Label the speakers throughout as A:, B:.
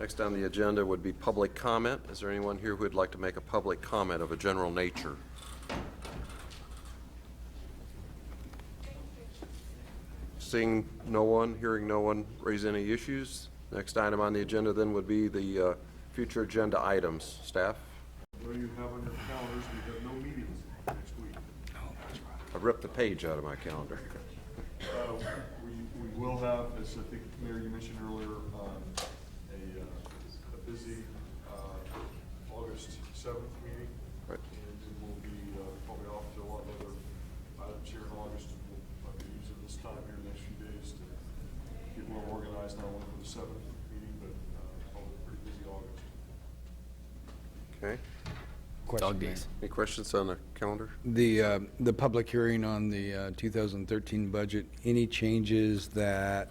A: Next on the agenda would be public comment. Is there anyone here who would like to make a public comment of a general nature? Seeing no one, hearing no one raise any issues, next item on the agenda then would be the uh, future agenda items. Staff,
B: What do you have on your calendars? We have no meetings next week.
A: I ripped the page out of my calendar.
B: Uh, We, we will have, as I think, Mayor, you mentioned earlier, um, a, uh, a busy uh, August seventh meeting.
A: Right.
B: And it will be uh, probably off to a lot of other items here in August. We'll uh, be using this time here the next few days to get more organized, not only for the seventh meeting, but uh, probably a pretty busy August.
A: Okay.
C: Dog days.
A: Any questions on the calendar?
D: The, uh, the public hearing on the uh, 2013 budget, any changes that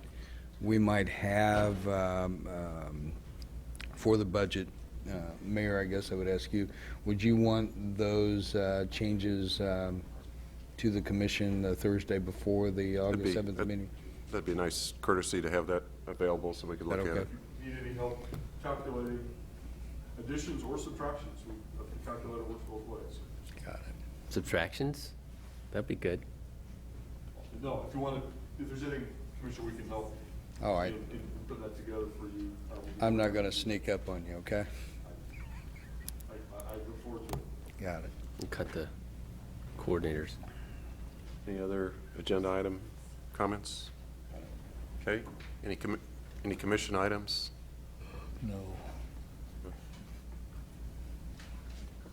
D: we might have um, um, for the budget? Uh, Mayor, I guess I would ask you, would you want those uh, changes um, to the commission the Thursday before the
A: That'd
D: August
A: be-
D: 7th
A: that-
D: meeting?
A: That'd be nice courtesy to have that available so we could look at
D: That
A: it.
D: okay?
B: Need any help calculating additions or subtractions? We, I think calculator works both ways.
C: Subtractions? That'd be good.
B: No, if you want to, if there's anything, Commissioner, we can help.
D: All right.
B: And and put that together for you. I will-
D: Oh, I'm not going to sneak up on you, okay?
B: I, I I look forward to it.
D: Got it.
C: And Cut the coordinators.
A: Any other agenda item comments? Okay, any, commi- any commission items? No.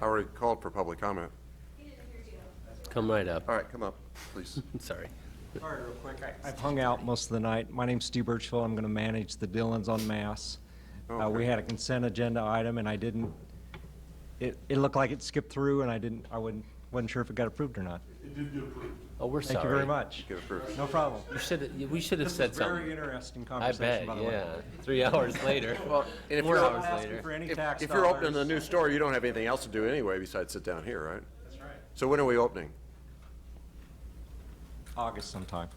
A: I already called for public comment.
C: Come right up.
A: All right, come up, please.
C: Sorry.
E: All right, real quick, I- I've hung out most of the night. My name's Steve Birchfield, I'm going to manage the Dillons on Mass. Uh,
A: Okay.
E: We had a consent agenda item, and I didn't, it, it looked like it skipped through, and I didn't, I wasn't, wasn't sure if it got approved or not.
B: It did get approved.
C: Oh, we're sorry.
E: Thank you very much.
A: Get approved.
E: No problem.
C: You should, we should have
E: This
C: said
E: was
C: something.
E: very interesting
C: I bet,
E: conversation, by the way.
C: yeah. Three hours later.
A: Well, and if
C: Four
A: you're-
E: Not
C: hours
E: asking
C: later.
E: for any
A: If
E: tax
A: if you're
E: dollars.
A: opening a new store, you don't have anything else to do anyway besides sit down here, right?
E: That's right.
A: So when are we opening?
E: August sometime,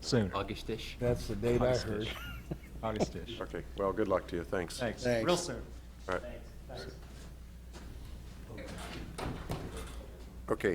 E: soon,
C: Augustish.
D: That's the date I heard.
E: Augustish.
A: Okay, well, good luck to you, thanks.
E: Thanks,
D: Thanks.
E: real soon.
A: All right. Okay,